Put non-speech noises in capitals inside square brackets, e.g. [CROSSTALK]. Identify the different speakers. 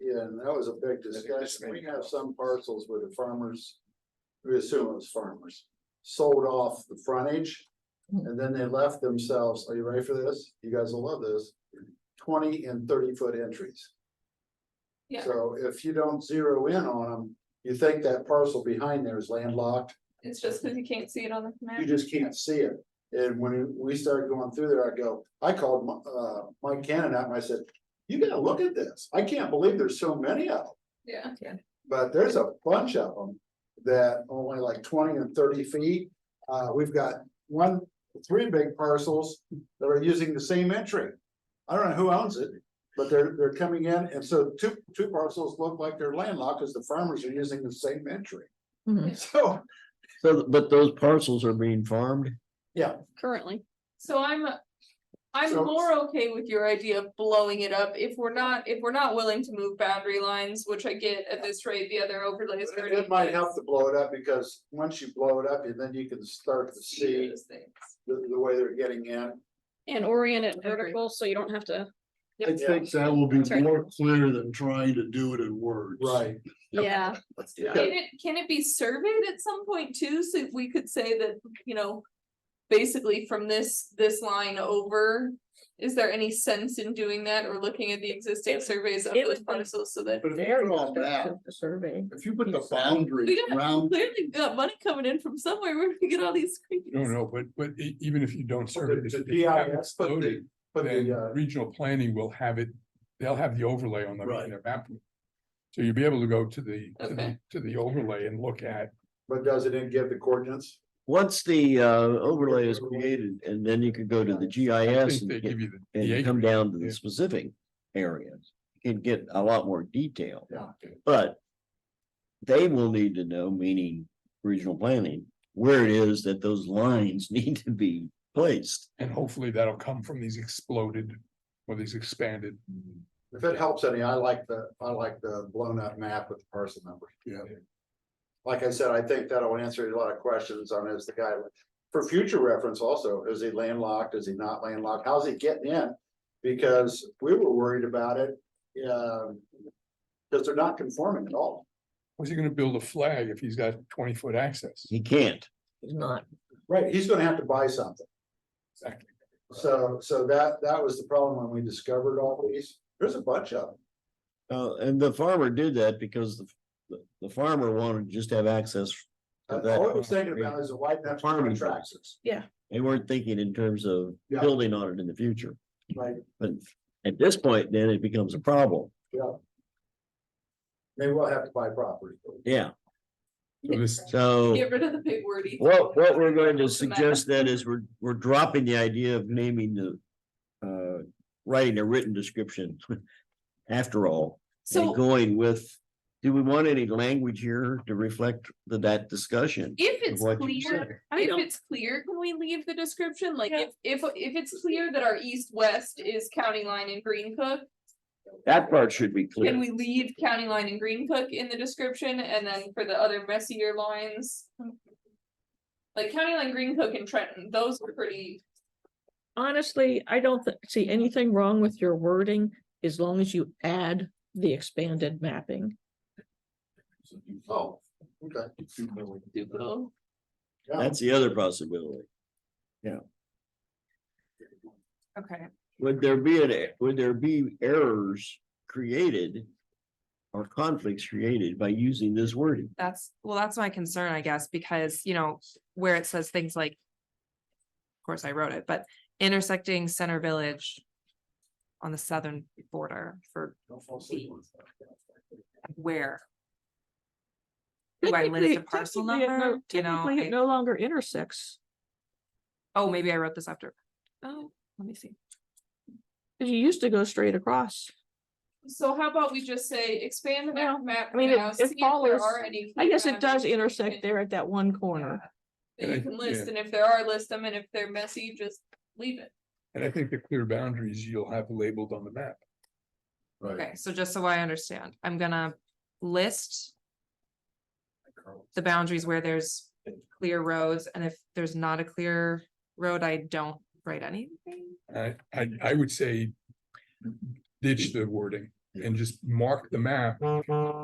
Speaker 1: and that was a big discussion. We have some parcels where the farmers. We assume it was farmers, sold off the frontage. And then they left themselves, are you ready for this? You guys will love this, twenty and thirty foot entries.
Speaker 2: Yeah.
Speaker 1: So if you don't zero in on them, you think that parcel behind there is landlocked,
Speaker 2: It's just because you can't see it on the map.
Speaker 1: you just can't see it. And when we started going through there, I go, I called my, uh, Mike Cannon out and I said, you gotta look at this. I can't believe there's so many of them.
Speaker 2: Yeah,
Speaker 1: but there's a bunch of them that only like twenty and thirty feet. Uh, we've got one, three big parcels that are using the same entry. I don't know who owns it, but they're, they're coming in, and so two, two parcels look like they're landlocked because the farmers are using the same entry.
Speaker 3: Mhm.
Speaker 1: [LAUGHS] So,
Speaker 4: So, but those parcels are being farmed?
Speaker 3: currently.
Speaker 2: so I'm, I'm
Speaker 1: So-
Speaker 2: more okay with your idea of blowing it up if we're not, if we're not willing to move boundary lines, which I get at this rate, the other overlays.
Speaker 1: it it might help to blow it up, because once you blow it up, and then you can start to see the, the way they're getting in.
Speaker 3: And orient it
Speaker 2: agree.
Speaker 3: vertical, so you don't have to,
Speaker 5: I think that will be
Speaker 3: That's right.
Speaker 5: more clear than trying to do it in words.
Speaker 3: yeah,
Speaker 4: Let's do
Speaker 2: Can it, can it be surveyed at some point too, so we could say that, you know, basically from this, this line over? Is there any sense in doing that or looking at the existing surveys of
Speaker 3: it
Speaker 2: those
Speaker 3: would be-
Speaker 2: parcels so that?
Speaker 5: But if you put all that,
Speaker 3: Survey.
Speaker 5: if you put the boundaries
Speaker 2: We don't-
Speaker 5: around,
Speaker 2: Clearly, we've got money coming in from somewhere, where do we get all these screens?
Speaker 6: No, no, but, but e- even if you don't serve
Speaker 1: The
Speaker 6: it.
Speaker 1: the
Speaker 6: if you have it
Speaker 1: GIS, but the,
Speaker 6: loaded,
Speaker 1: but
Speaker 6: Then
Speaker 1: the, uh,
Speaker 6: regional planning will have it, they'll have the overlay on the,
Speaker 5: Right.
Speaker 6: their map. So you'll be able to go to the, to the,
Speaker 2: Okay.
Speaker 6: to the overlay and look at,
Speaker 1: but doesn't it give the coordinates?
Speaker 4: Once the uh overlay is created and then you can go to the
Speaker 6: I
Speaker 4: GIS
Speaker 6: think
Speaker 4: and
Speaker 6: they
Speaker 4: get,
Speaker 6: give you the. the
Speaker 4: and come
Speaker 6: acreage.
Speaker 4: down to the
Speaker 6: yeah.
Speaker 4: specific areas. And get a lot more detail,
Speaker 1: Yeah.
Speaker 4: but. They will need to know, meaning regional planning, where it is that those lines [LAUGHS] need to be placed.
Speaker 6: And hopefully that'll come from these exploded or these expanded.
Speaker 4: Mm-hmm.
Speaker 1: If it helps any, I like the, I like the blown up map with the parcel number.
Speaker 5: Yeah.
Speaker 1: Like I said, I think that'll answer a lot of questions on is the guy, for future reference also, is he landlocked, is he not landlocked, how's he getting in? Because we were worried about it, um because they're not conforming at all.
Speaker 6: Was he gonna build a flag if he's got twenty foot access?
Speaker 4: He can't.
Speaker 3: Not.
Speaker 1: Right. He's gonna have to buy something,
Speaker 6: Exactly.
Speaker 1: so, so that, that was the problem when we discovered all these, there's a bunch of them.
Speaker 4: Uh, and the farmer did that because the, the- the farmer wanted to just have access. to
Speaker 1: Uh,
Speaker 4: that.
Speaker 1: All I was thinking about is why not
Speaker 4: Farming.
Speaker 1: tractors,
Speaker 4: They weren't thinking in terms of
Speaker 1: Yeah.
Speaker 4: building on it in the future,
Speaker 1: like,
Speaker 4: but at this point, then it becomes a problem.
Speaker 1: yeah. Maybe we'll have to buy property.
Speaker 4: Yeah,
Speaker 6: So this,
Speaker 4: so
Speaker 2: Get rid of the big wordy.
Speaker 4: what, what we're going to suggest then is we're, we're dropping the idea of naming the, uh, writing a written description [LAUGHS] after all, and
Speaker 2: So
Speaker 4: going with, do we want any language here to reflect the- that discussion? of
Speaker 2: if it's
Speaker 4: what you
Speaker 2: clear,
Speaker 4: said?
Speaker 3: I
Speaker 2: if
Speaker 3: don't-
Speaker 2: it's clear, can we leave the description? Like
Speaker 3: Yeah.
Speaker 2: if, if, if it's clear that our east-west is county line and Green Cook,
Speaker 4: That part should be clear.
Speaker 2: can we leave county line and Green Cook in the description and then for the other messier lines? Like county line, Green Cook and Trenton, those are pretty,
Speaker 3: Honestly, I don't thi- see anything wrong with your wording as long as you add the expanded mapping.
Speaker 1: Oh, okay.
Speaker 2: doable.
Speaker 1: Yeah.
Speaker 4: That's the other possibility.
Speaker 2: Okay.
Speaker 4: Would there be an, e- would there be errors created? Or conflicts created by using this wording?
Speaker 7: That's, well, that's my concern, I guess, because, you know, where it says things like. Of course, I wrote it, but intersecting center village. On the southern border for
Speaker 1: Don't fall asleep on stuff.
Speaker 7: where? Do I list a
Speaker 3: Technically-
Speaker 7: parcel
Speaker 3: technically it no-
Speaker 7: number? You know,
Speaker 3: Technically,
Speaker 7: I-
Speaker 3: it no longer intersects,
Speaker 7: oh, maybe I wrote this after. Oh, let me see.
Speaker 3: because you used to go straight across.
Speaker 2: So how about we just say expand the map-
Speaker 3: Well,
Speaker 2: map?
Speaker 3: I mean, it-
Speaker 2: now,
Speaker 3: it
Speaker 2: see if there
Speaker 3: follows-
Speaker 2: are any
Speaker 3: I guess
Speaker 2: clear
Speaker 3: it
Speaker 2: boundaries
Speaker 3: does
Speaker 2: that you
Speaker 3: intersect
Speaker 2: can-
Speaker 3: there at that one corner.
Speaker 2: That you can list, and if there are, list them, and if they're messy, just leave it.
Speaker 6: and I think the clear boundaries you'll have labeled on the map.
Speaker 7: Okay, so just so I understand, I'm gonna list the boundaries where there's clear roads, and if there's not a clear road, I don't write anything.
Speaker 6: I, I, I would say ditch the wording. and just mark the map